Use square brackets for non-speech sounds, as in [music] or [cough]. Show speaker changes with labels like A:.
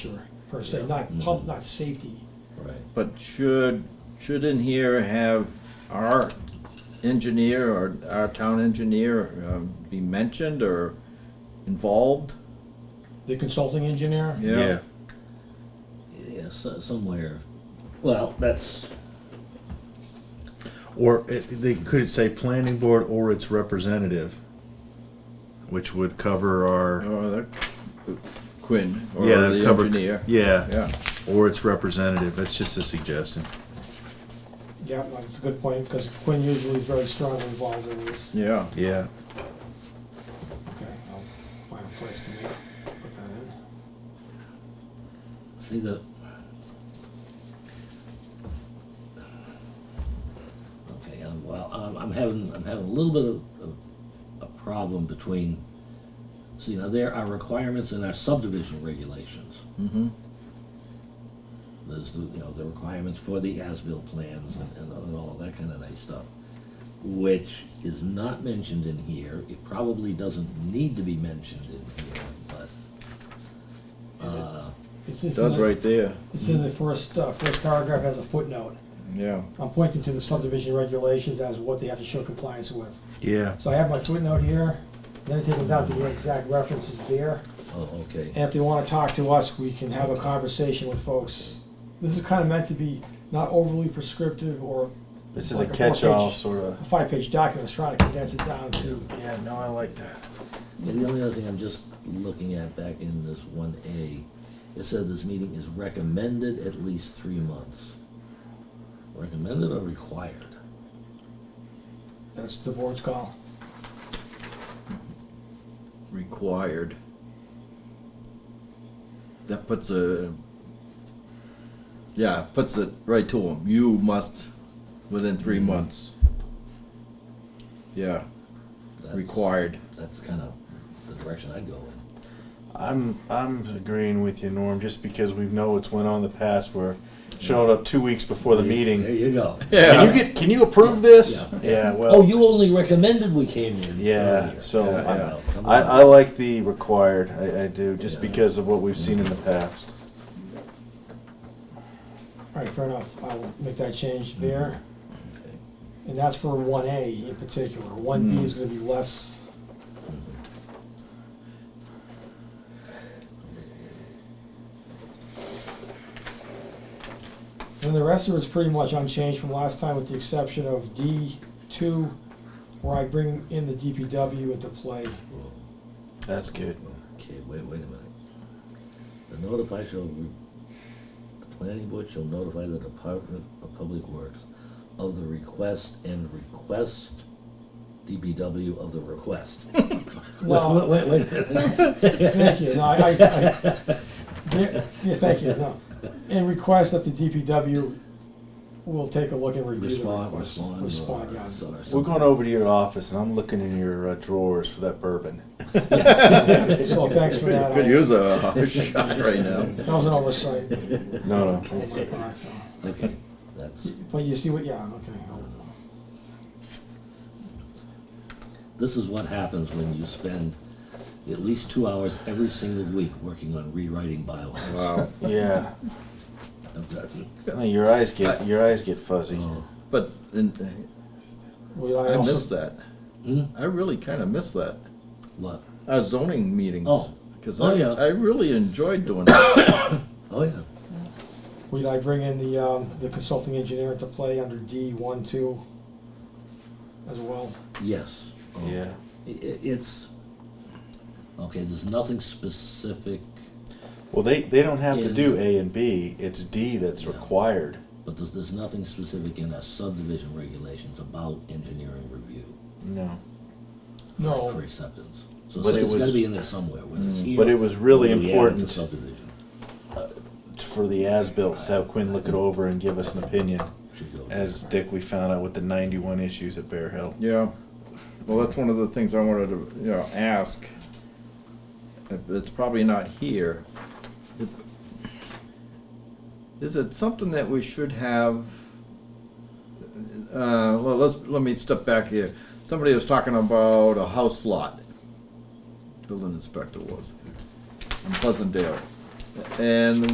A: sure, per se, not pump, not safety.
B: Right, but should, shouldn't here have our engineer or our town engineer um, be mentioned or involved?
A: The consulting engineer?
B: Yeah,
C: Yeah, so, somewhere. Well, that's
D: Or it, they could say planning board or its representative, which would cover our,
B: or the Oh, Quinn, or
D: yeah, that
B: the
D: cover,
B: engineer.
D: yeah,
B: Yeah,
D: or its representative, that's just a suggestion.
A: Yeah, that's a good point, because Quinn usually is very strongly involved in this.
B: yeah,
D: Yeah,
A: Okay, I'll find a place to make, put that in.
C: see the. Okay, um, well, I'm, I'm having I'm having a little bit of, of a problem between. See now there are requirements in our subdivision regulations.
B: mm-hmm,
C: There's the you know the requirements for the as-built plans and, and, all that kind of nice stuff, which is not mentioned in here. It probably doesn't need to be mentioned in here, but. Uh,
A: It's- it's in
B: that's
A: the-
B: right there,
A: It's in the first, uh, first paragraph as a footnote.
B: yeah.
A: I'm pointing to the subdivision regulations as what they have to show compliance with.
D: yeah,
A: So I have my footnote here, then I take them down to the exact references there.
C: oh, okay.
A: And if they wanna talk to us, we can have a conversation with folks. This is kinda meant to be not overly prescriptive or
D: this
A: is
D: is
A: a
D: a
A: Like a four-page- catch-all
D: catch-all sort
A: a
D: of.
A: five-page document, it's trying to condense it down to,
D: Yeah, no, I like that.
C: Yeah, the only other thing I'm just looking at back in this one A, it said this meeting is recommended at least three months. Recommended or required?
A: that's the board's call.
B: required. That puts a, yeah, puts it right to them. You must, within three
D: Mm.
B: months. Yeah,
C: That's-
B: required.
C: That's kind of the direction I'd go in.
D: I'm, I'm agreeing with you, Norm, just because we know it's went on in the past where showed up two weeks before the
C: There
D: meeting.
C: you go.
D: Can you get, can you approve this? Yeah,
C: Oh,
D: well,
C: you only recommended we came in.
D: yeah,
C: earlier.
D: so
B: Yeah,
D: I,
B: yeah.
C: Well, come
D: I,
C: on.
D: I like the required, I, I do, just
C: Yeah.
D: because of what we've seen in the past.
A: All right, fair enough, I will make that change there. And that's for one A in particular, one B is gonna be less, And the rest of it's pretty much unchanged from last time with the exception of D two, where I bring in the DPW into play.
C: Well,
D: That's good.
C: Okay, wait, wait a minute. The notify shall, re- the planning board shall notify the Department of Public Works of the request and request DPW of the
A: [laughs]
C: request.
A: No,
C: Wait, wait, wait.
A: thank you, no, I, I, I, yeah, yeah, thank you, no. And request that the DPW will take a look and review the
C: Respond, uh,
A: request.
C: respond.
A: Respond,
C: [laughs]
A: yeah.
D: We're going over to your office, and I'm looking in your uh, drawers for that bourbon.
A: So thanks for that.
B: Could use a [laughs] shot right now.
A: That was an oversight.
D: No, no.
A: on my part, so.
C: [laughs] Okay, that's,
A: But you see what, yeah, okay.
C: this is what happens when you spend at least two hours every single week working on rewriting bylaws.
B: Wow.
D: Yeah,
C: Okay.
D: No, Uh, your eyes get your eyes get fuzzy.
C: Oh,
B: But in,
A: Well, I
B: I missed
A: also,
B: that.
C: Hmm?
B: I really kind of miss that.
C: What?
B: Our zoning meetings.
C: Oh.
B: Because
C: Oh,
B: I,
C: yeah.
B: I really enjoyed doing that.
C: Oh, yeah.
A: would I bring in the, um, the consulting engineer into play under D one, two as well?
C: Yes. Oh,
D: Yeah,
C: I- i- It's, okay, there's nothing specific,
D: well, they they don't have to do A and B. It's D that's required.
C: but there's, there's nothing specific in our subdivision regulations about engineering review
D: No,
A: No,
C: for acceptance. So
D: But it
C: it's gotta
D: was- Mm.
C: be in there somewhere, whether it's here.
D: but it was really
C: or we add it to
D: important
C: Subdivision
D: for the as-built to have Quinn look it over and give us an opinion.
C: should go.
D: As Dick, we found out with the 91 issues at Bear Hill.
B: Yeah, well, that's one of the things I wanted to, you know, ask. If It's probably not here. Is it something that we should have? Uh, well, let's, let me step back here. Somebody was talking about a house lot. Building inspector was, in Pleasantdale. And